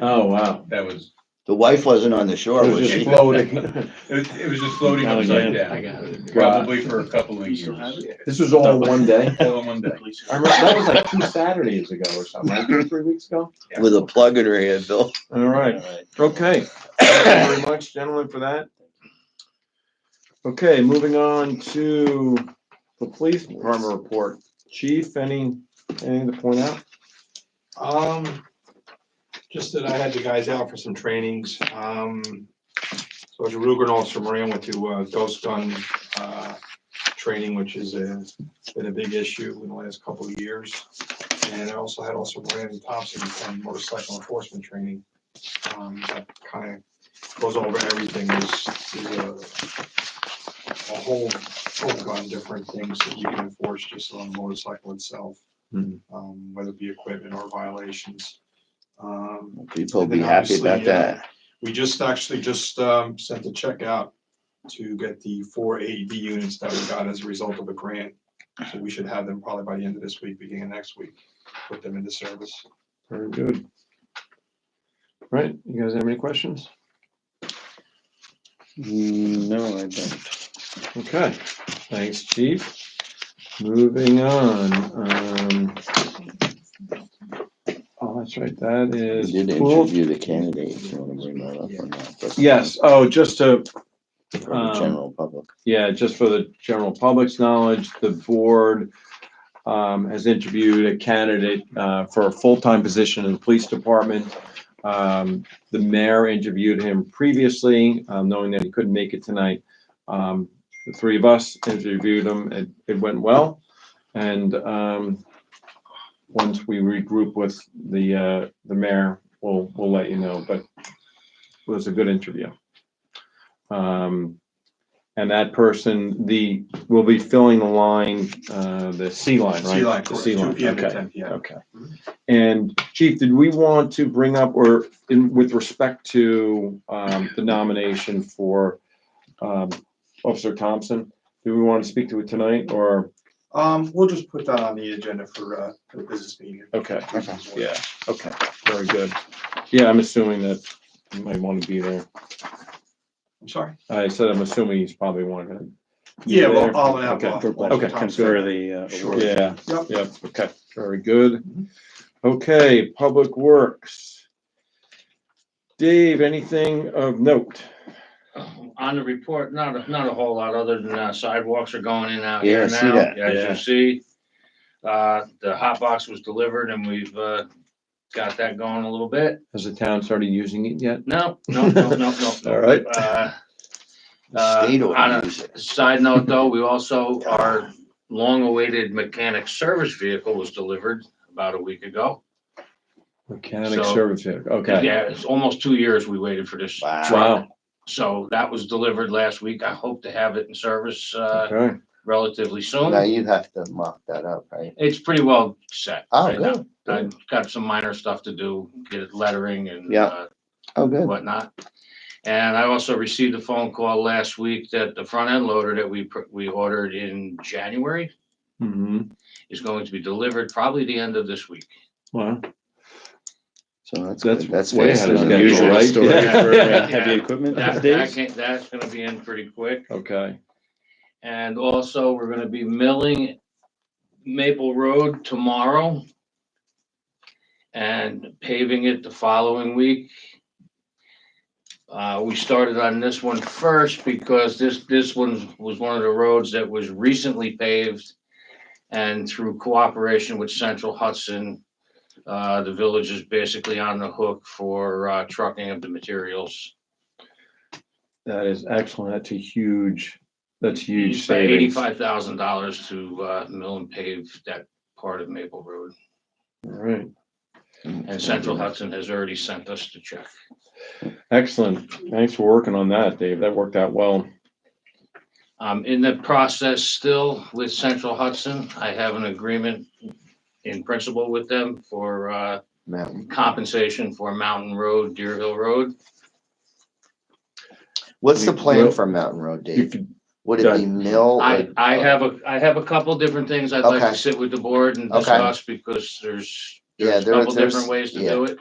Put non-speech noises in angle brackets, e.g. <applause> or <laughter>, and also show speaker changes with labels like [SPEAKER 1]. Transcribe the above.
[SPEAKER 1] Oh, wow.
[SPEAKER 2] That was,
[SPEAKER 3] The wife wasn't on the shore,
[SPEAKER 1] It was
[SPEAKER 3] was
[SPEAKER 1] just <laughs>
[SPEAKER 3] she?
[SPEAKER 1] floating.
[SPEAKER 2] it was, it was just floating
[SPEAKER 1] Down
[SPEAKER 2] upside
[SPEAKER 1] again.
[SPEAKER 2] down,
[SPEAKER 4] got it.
[SPEAKER 2] probably for a couple of
[SPEAKER 4] You still have
[SPEAKER 2] years.
[SPEAKER 4] it?
[SPEAKER 1] This was all in one day.
[SPEAKER 2] All in one day.
[SPEAKER 1] I remember, that was like two Saturdays ago or something, like two, three weeks ago.
[SPEAKER 3] With a plug in her head, Bill.
[SPEAKER 1] All right, okay. Thank you very much, gentlemen, for that. Okay, moving on to the police department report. Chief, any, anything to point out?
[SPEAKER 5] Um, just that I had the guys out for some trainings, um, Sergeant Ruger and Officer Moran went to, uh, ghost gun, uh, training, which is a, been a big issue in the last couple of years. And I also had also Moran Thompson from motorcycle enforcement training, um, that kind of goes over everything, is, is a a whole, whole gun, different things that you can enforce just on the motorcycle itself um, whether it be equipment or violations. Um,
[SPEAKER 3] People will be happy about that.
[SPEAKER 5] we just actually just, um, sent a check out to get the four AED units that we got as a result of a grant. So we should have them probably by the end of this week, beginning of next week, put them into service.
[SPEAKER 1] Very good. All Right, you guys have any questions?
[SPEAKER 3] No, I don't.
[SPEAKER 1] Okay, thanks, chief. Moving on, um. Oh, that's right, that
[SPEAKER 3] We
[SPEAKER 1] is
[SPEAKER 3] did
[SPEAKER 1] pool.
[SPEAKER 3] interview the candidate, if you wanna bring that up or not. but-
[SPEAKER 1] Yes, oh, just to
[SPEAKER 3] For the
[SPEAKER 1] um,
[SPEAKER 3] general public.
[SPEAKER 1] Yeah, just for the general public's knowledge, the board um, has interviewed a candidate uh, for a full-time position in the police department. Um, The mayor interviewed him previously, um, knowing that he couldn't make it tonight. Um, The three of us interviewed him. It, it went well. And um, once we regroup with the, uh, the mayor, we'll, we'll let you know, but it was a good interview. Um, and that person, the, will be filling the line, uh, the C line, right?
[SPEAKER 5] Sea Lion
[SPEAKER 1] The
[SPEAKER 5] Corps,
[SPEAKER 1] sea
[SPEAKER 5] two
[SPEAKER 1] line,
[SPEAKER 5] PM to
[SPEAKER 1] okay.
[SPEAKER 5] ten PM.
[SPEAKER 1] Okay. And Chief, did we want to bring up or in with respect to um the nomination for um Officer Thompson? Do we want to speak to it tonight or,
[SPEAKER 5] Um, we'll just put that on the agenda for, uh, for the business meeting.
[SPEAKER 1] okay, yeah, okay, very good. Yeah, I'm assuming that he might want to be there.
[SPEAKER 5] I'm sorry.
[SPEAKER 1] I said, I'm assuming he's probably one of them.
[SPEAKER 5] Yeah,
[SPEAKER 1] there?
[SPEAKER 5] well, I'll have.
[SPEAKER 1] Okay,
[SPEAKER 5] I'll-
[SPEAKER 1] okay,
[SPEAKER 5] I'll-
[SPEAKER 1] sounds
[SPEAKER 6] For the. uh,
[SPEAKER 5] Sure.
[SPEAKER 6] award.
[SPEAKER 1] Yeah, Mm-hmm.
[SPEAKER 5] Yep.
[SPEAKER 1] yep, okay, very good. Okay, Public Works. Dave, anything of note?
[SPEAKER 4] Um, On the report, not, a- not a whole lot, other than uh, sidewalks are going in out
[SPEAKER 3] Yeah, I
[SPEAKER 4] here
[SPEAKER 3] see
[SPEAKER 4] now,
[SPEAKER 3] that.
[SPEAKER 4] as
[SPEAKER 1] Yeah.
[SPEAKER 4] you see. Uh, the hot box was delivered and we've, uh, got that going a little bit.
[SPEAKER 1] Has the town started using it yet?
[SPEAKER 4] No, no, no, no, no.
[SPEAKER 3] <laughs>
[SPEAKER 4] no.
[SPEAKER 1] All right.
[SPEAKER 4] Uh,
[SPEAKER 3] The State
[SPEAKER 4] Uh, on
[SPEAKER 3] ought
[SPEAKER 4] a-
[SPEAKER 3] to use it.
[SPEAKER 4] Side note though, we also, our long-awaited mechanic service vehicle was delivered about a week ago.
[SPEAKER 1] Mechanic
[SPEAKER 4] So-
[SPEAKER 1] service here, okay.
[SPEAKER 4] Yeah, it's almost two years we waited for this.
[SPEAKER 3] Wow.
[SPEAKER 1] Wow,
[SPEAKER 4] So that was delivered last week. I hope to have it in service, uh,
[SPEAKER 1] okay,
[SPEAKER 4] relatively
[SPEAKER 3] Now
[SPEAKER 4] soon.
[SPEAKER 3] you have to mock that up, right?
[SPEAKER 4] It's pretty well set.
[SPEAKER 3] Oh,
[SPEAKER 4] right now.
[SPEAKER 3] good,
[SPEAKER 4] I've got some minor stuff to do, get it lettering and
[SPEAKER 3] Yeah.
[SPEAKER 4] uh,
[SPEAKER 3] Oh, good.
[SPEAKER 4] whatnot. And I also received a phone call last week that the front end loader that we, pr- we ordered in January
[SPEAKER 1] hmm
[SPEAKER 4] is going to be delivered probably the end of this week.
[SPEAKER 1] wow.
[SPEAKER 3] So that's
[SPEAKER 1] That's
[SPEAKER 3] good. That's
[SPEAKER 1] way ahead
[SPEAKER 3] faster
[SPEAKER 1] of
[SPEAKER 3] than
[SPEAKER 1] schedule,
[SPEAKER 3] usual.
[SPEAKER 1] right?
[SPEAKER 6] Storage
[SPEAKER 1] <laughs> Yeah.
[SPEAKER 6] for,
[SPEAKER 4] Yeah.
[SPEAKER 6] uh, Heavy equipment
[SPEAKER 4] That, that
[SPEAKER 6] days.
[SPEAKER 4] can that's gonna be in pretty quick.
[SPEAKER 1] Okay,
[SPEAKER 4] And also, we're gonna be milling Maple Road tomorrow. And paving it the following week. Uh, we started on this one first because this, this one was one of the roads that was recently paved. And through cooperation with Central Hudson, uh, the village is basically on the hook for, uh, trucking of the materials.
[SPEAKER 1] that is excellent, that's a huge, that's huge savings. All
[SPEAKER 4] Eighty-five thousand dollars to, uh, mill and pave that part of Maple Road.
[SPEAKER 1] right,
[SPEAKER 4] And Central Hudson has already sent us the check.
[SPEAKER 1] excellent, thanks for working on that, Dave, that worked out well.
[SPEAKER 4] I'm in the process still with Central Hudson. I have an agreement in principle with them for uh,
[SPEAKER 3] Mountain.
[SPEAKER 4] compensation for Mountain Road, Deer Hill Road.
[SPEAKER 3] What's the
[SPEAKER 1] You-
[SPEAKER 3] plan
[SPEAKER 1] well,
[SPEAKER 3] for Mountain Road,
[SPEAKER 1] You
[SPEAKER 3] Dave?
[SPEAKER 1] could,
[SPEAKER 3] Would it be mill? or-
[SPEAKER 4] I, I have a, I have a couple different things I'd like
[SPEAKER 3] Okay.
[SPEAKER 4] to sit with the board and
[SPEAKER 3] Okay.
[SPEAKER 4] discuss because there's
[SPEAKER 3] Yeah,
[SPEAKER 4] there's a
[SPEAKER 3] there-
[SPEAKER 4] couple
[SPEAKER 3] there's-
[SPEAKER 4] different ways to
[SPEAKER 3] yeah.
[SPEAKER 4] do it.